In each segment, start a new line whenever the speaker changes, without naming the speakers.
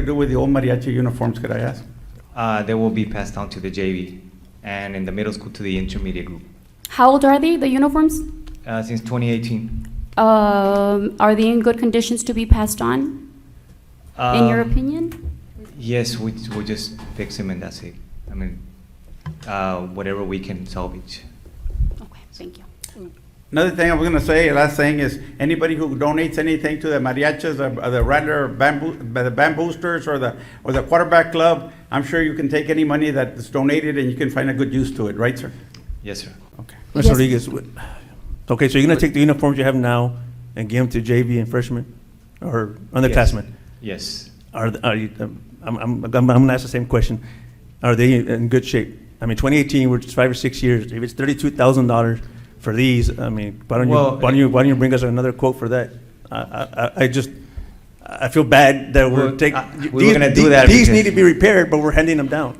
to do with the old mariachi uniforms, could I ask?
Uh, they will be passed down to the JV and in the middle school to the intermediate group
How old are they, the uniforms?
uh, since 2018.
Um, Are they in good conditions to be passed on, in your
Um,
opinion?
Yes, we, we just fix them and that's it. I mean, uh, whatever we can salvage.
Okay, thank you.
Another thing I was gonna say, last thing is, anybody who donates anything to the mariachis, or or the Rattler bamboo, the bamboosters, or the, or the quarterback club, I'm sure you can take any money that's donated and you can find a good use to it, right, sir?
Yes, sir.
Okay.
Mr.
Yes.
Rodriguez, what- okay, so you're gonna take the uniforms you have now and give them to JV and freshmen or underclassmen?
Yes.
Are, th- are you, um, I'm, I'm, I'm gonna ask the same question. Are they in good shape? I mean, 2018, which is five or six years, if it's thirty-two thousand dollars for these, I mean, why don't you,
Well,
why don't you, why don't you bring us another quote for that? I, I, I- I just, I feel bad that we're
Well,
taking.
I- we were gonna do that
These
because-
need to be repaired, but we're handing them down.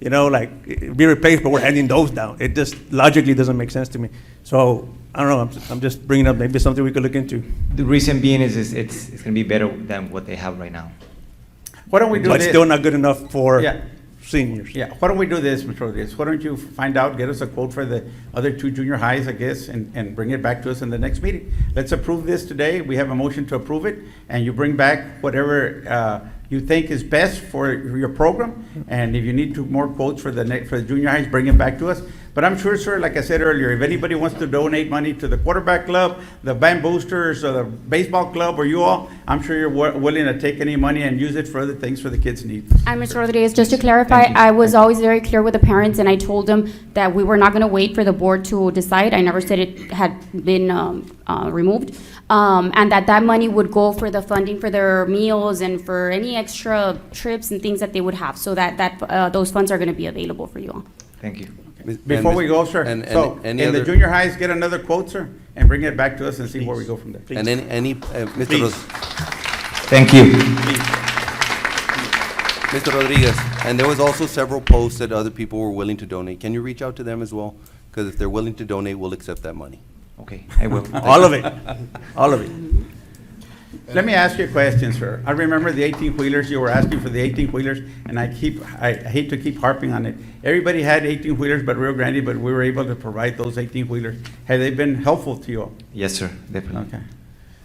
You know, like, i- be replaced, but we're handing those down. It just logically doesn't make sense to me. So, I don't know, I'm, I'm just bringing up maybe something we could look into.
The reason being is, is it's, it's going to be better than what they have right now.
Why don't we do
But
this?
still not good enough for
Yeah.
seniors.
Yeah, why don't we do this, Mr. Rodriguez? Why don't you find out, get us a quote for the other two junior highs, I guess, and, and bring it back to us in the next meeting? Let's approve this today. We have a motion to approve it, and you bring back whatever, uh, you think is best for your program. And if you need to, more quotes for the next, for the junior highs, bring it back to us. But I'm sure, sir, like I said earlier, if anybody wants to donate money to the quarterback club, the band boosters, or the baseball club, or you all, I'm sure you're wi- willing to take any money and use it for other things for the kids' needs.
And Mr. Rodriguez, just to clarify,
Thank you.
I was always very clear with the parents, and I told them that we were not going to wait for the board to decide. I never said it had been um, uh, removed, Um, and that that money would go for the funding for their meals and for any extra trips and things that they would have, so that, that uh, those funds are going to be available for you all.
Thank you.
Before we go, sir,
And, and
so, and
any
the
other-
junior highs get another quote, sir, and bring it back to us and see where we go from there.
And any, any, uh, Mr.
Please.
Ros-
Thank you.
Mr. Rodriguez, and there was also several posts that other people were willing to donate. Can you reach out to them as well? Because if they're willing to donate, we'll accept that money.
Okay, I will.
All of it, all of it.
Let me ask you a question, sir. I remember the eighteen wheelers, you were asking for the eighteen wheelers, and I keep, I I hate to keep harping on it. Everybody had eighteen wheelers but Rio Grande, but we were able to provide those eighteen wheelers. Have they been helpful to you all?
Yes, sir, definitely.
Okay.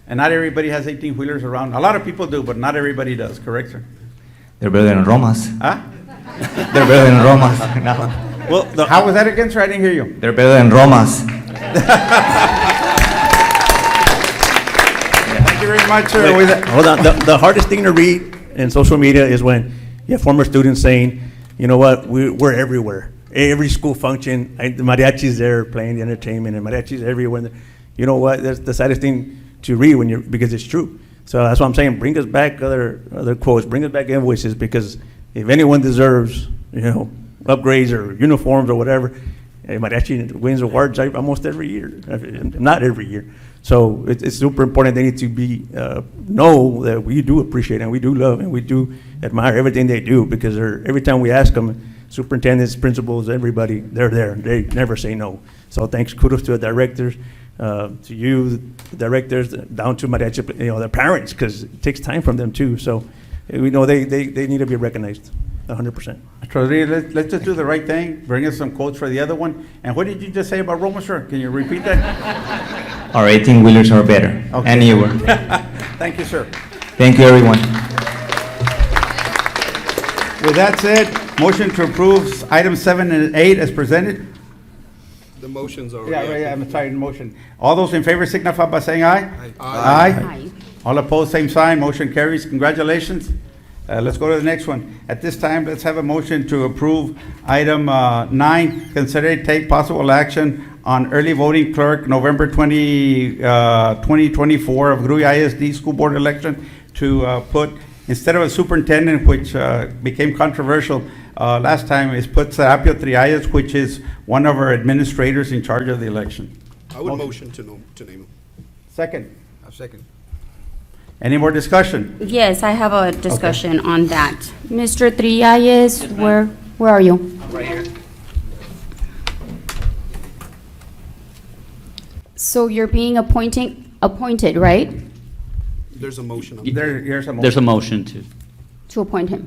And not everybody has eighteen wheelers around. A lot of people do, but not everybody does, correct, sir?
They're better than Romas.
Huh?
They're better than Romas. No.
Well, the,
How was that again, sir? I didn't hear you.
They're better than Romas.
Thank you very much, sir. With
Wait,
that-
Hold on, the, the hardest thing to read in social media is when you have former students saying, you know what, we, we're everywhere. Every school function, I, the mariachi's there playing the entertainment and mariachi's everywhere. You know what, that's the saddest thing to read when you're, because it's true. So that's what I'm saying, bring us back other, other quotes, bring us back invoices, because if anyone deserves, you know, upgrades or uniforms or whatever, it might actually wins awards like, almost every year, if- not every year. So it's, it's super important they need to be, uh, know that we do appreciate and we do love and we do admire everything they do because they're, every time we ask them, superintendents, principals, everybody, they're there. They never say no. So thanks, kudos to the directors, uh, to you, the directors, down to mariachi, you know, the parents, because it takes time from them too. So uh, we know they, they, they need to be recognized, hundred percent.
Mr. Rodriguez, let's, let's just do the right thing, bring us some quotes for the other one. And what did you just say about Roma, sir? Can you repeat that?
Our 18 wheelers are better.
Okay.
Anywhere.
Thank you, sir.
Thank you, everyone.
With that said, motion to approve item seven and eight as presented.
The motion's already.
Yeah, yeah, I'm sorry, motion. All those in favor signify by saying aye.
Aye.
Aye.
Aye.
All opposed, same sign, motion carries. Congratulations. Uh, let's go to the next one. At this time, let's have a motion to approve item, uh, nine, consider and take possible action on early voting clerk, November twenty, uh, twenty twenty-four of Gruy ISD School Board election to, uh, put, instead of a superintendent, which, uh, became controversial, uh, last time, is put Serapio Trias, which is one of our administrators in charge of the election.
I would motion to nom- to name him.
Second.
I second.
Any more discussion?
Yes, I have a discussion on that. Mr. Trialles, where, where are you? So you're being appointing, appointed, right?
There's a motion. on
There, here's a motion.
There's a motion to,
to appoint him.